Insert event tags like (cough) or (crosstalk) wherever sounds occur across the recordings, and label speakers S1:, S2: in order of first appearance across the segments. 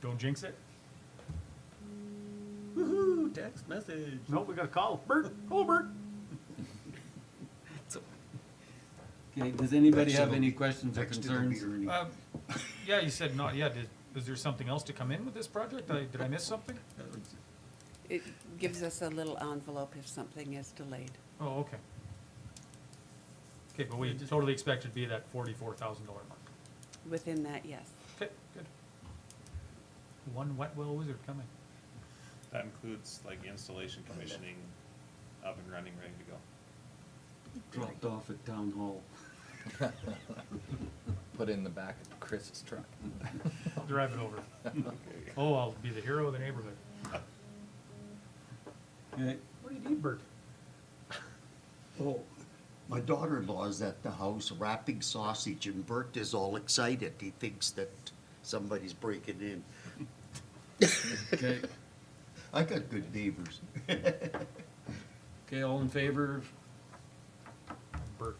S1: Don't jinx it.
S2: Woohoo, text message.
S1: Nope, we got a call. Bert, oh Bert.
S2: Okay, does anybody have
S3: Actually,
S2: any questions or
S3: Next, it'll
S2: concerns?
S3: be Ernie.
S1: Um, (coughs) yeah, you said not yet. Is, is there something else to come in with this project? I, did I miss something?
S4: It gives us a little envelope if something is delayed.
S1: Oh, okay. Okay, but we totally expect it to be that forty-four thousand dollar mark.
S4: Within that, yes.
S1: Okay, good. One wet well wizard coming.
S5: That includes like installation, commissioning, up and running, ready to go.
S2: Dropped off at town hall.
S6: put it in the back of Chris's truck.
S1: I'll drive (laughs) it over. Oh, I'll be the hero of the neighborhood.
S2: Okay,
S1: What do you need, Bert?
S3: Oh, my daughter-in-law is at the house wrapping sausage, and Bert is all excited. He thinks that somebody's breaking in.
S2: okay,
S3: I got good neighbors.
S2: okay, all in favor,
S1: Bert.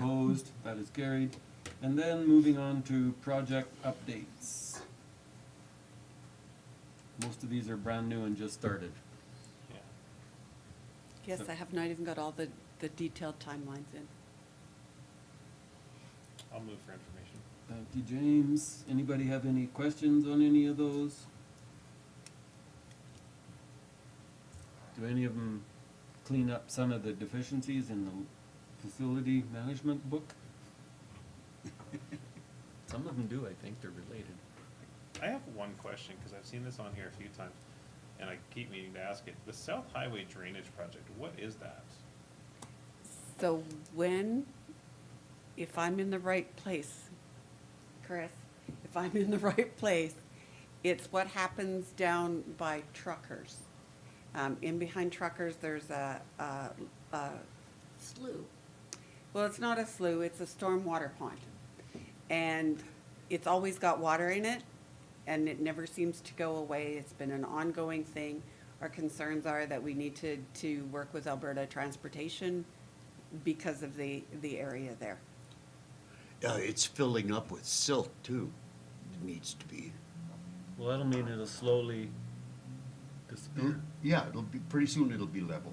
S2: opposed, that is carried. And then moving on to project updates. Most of these are brand new and just started.
S5: Yeah.
S4: Yes, I have not even got all the, the detailed timelines in.
S5: I'll move for information.
S2: Thank you, James. Anybody have any questions on any of those? Do any of them clean up some of the deficiencies in the facility management book?
S6: Some of them do, I think, they're related.
S5: I have one question, because I've seen this on here a few times, and I keep meaning to ask it. The South Highway Drainage Project, what is that?
S4: So when, if I'm in the right place, Chris, if I'm in the (laughs) right place, it's what happens down by truckers. Um, in behind truckers, there's a, a, a. Slough. Well, it's not a slough, it's a stormwater pond. And it's always got water in it and it never seems to go away. It's been an ongoing thing. Our concerns are that we need to, to work with Alberta Transportation because of the, the area there.
S3: Uh, it's filling up with silt, too. It needs to be.
S2: Well, that'll mean it'll slowly disappear.
S3: Yeah, it'll be, pretty soon it'll be level.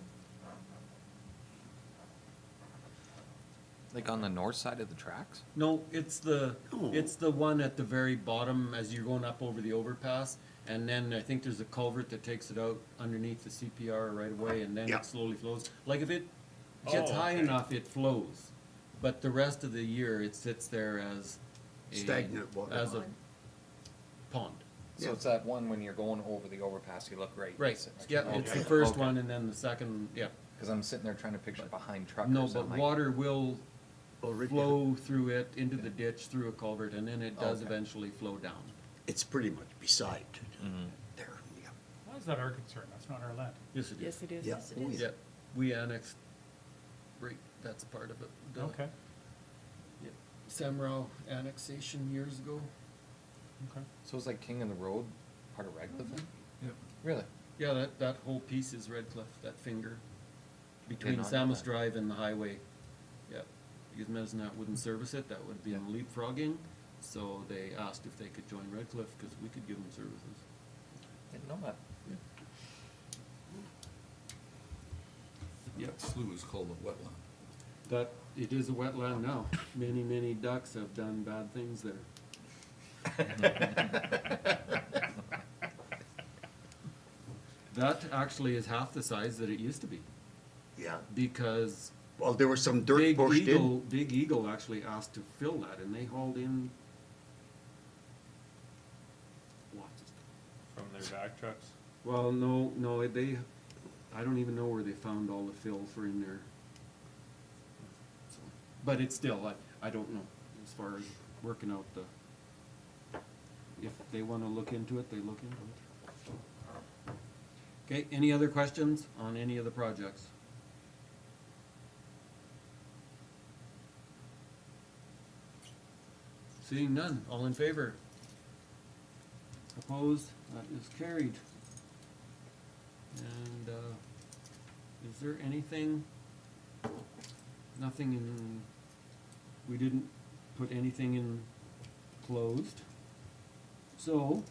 S6: Like on the north side of the tracks?
S2: No, it's the,
S3: Oh.
S2: it's the one at the very bottom as you're going up over the overpass. And then I think there's a culvert that takes it out underneath the CPR right away and then
S3: Yeah.
S2: it slowly flows. Like if it gets
S5: Oh,
S2: high
S5: okay.
S2: enough, it flows. But the rest of the year, it sits there as a-
S3: Stagnant water.
S2: As a pond.
S6: So it's that one when you're going over the overpass, you look right.
S2: Right, yeah, it's the first one and then the second, yeah.
S6: Because I'm sitting there trying to picture behind truckers.
S2: No,
S6: I'm
S2: but
S6: like,
S2: water will
S3: Already-
S2: flow through it, into the ditch, through a culvert, and then it does
S6: Okay.
S2: eventually flow down.
S3: It's pretty much beside there, yeah.
S1: Why is that our concern? That's not our land.
S2: Yes, it
S4: Yes, it is.
S3: Yeah, oh,
S2: Yeah, we annexed, right, that's part of it. the
S1: Okay,
S2: Samrow annexation years ago.
S1: okay.
S6: So it's like King of the Road, part of Redcliffe? then?
S2: Yep.
S6: Really?
S2: Yeah, that, that whole piece is Red Cliff, that finger, between
S6: not know
S2: Samus
S6: that.
S2: Drive and the highway. Yeah, because Mesnat wouldn't service it, that would be in leapfrogging, so they asked if they could join Red Cliff, cause we could give them services.
S6: Didn't know that.
S2: Yep,
S7: Slough is called a wetland.
S2: that, it is a wetland now, many, many ducks have done bad things there. (laughs) That actually is half the size that it used to be,
S3: Yeah,
S2: because
S3: well, there was some dirt
S2: Big
S3: pushed in.
S2: Eagle, Big Eagle actually asked to fill that, and they hauled in lots of stuff.
S5: From their back trucks?
S2: Well, no, no, they, I don't even know where they found all the fill for in there. So, But it's still, I, I don't know, as far as working out the, if they wanna look into it, they look into it. Okay, any other questions on any of the projects? Seeing none, all in favor? Opposed, that is carried. And, uh, is there anything, nothing in, we didn't put anything in closed. So,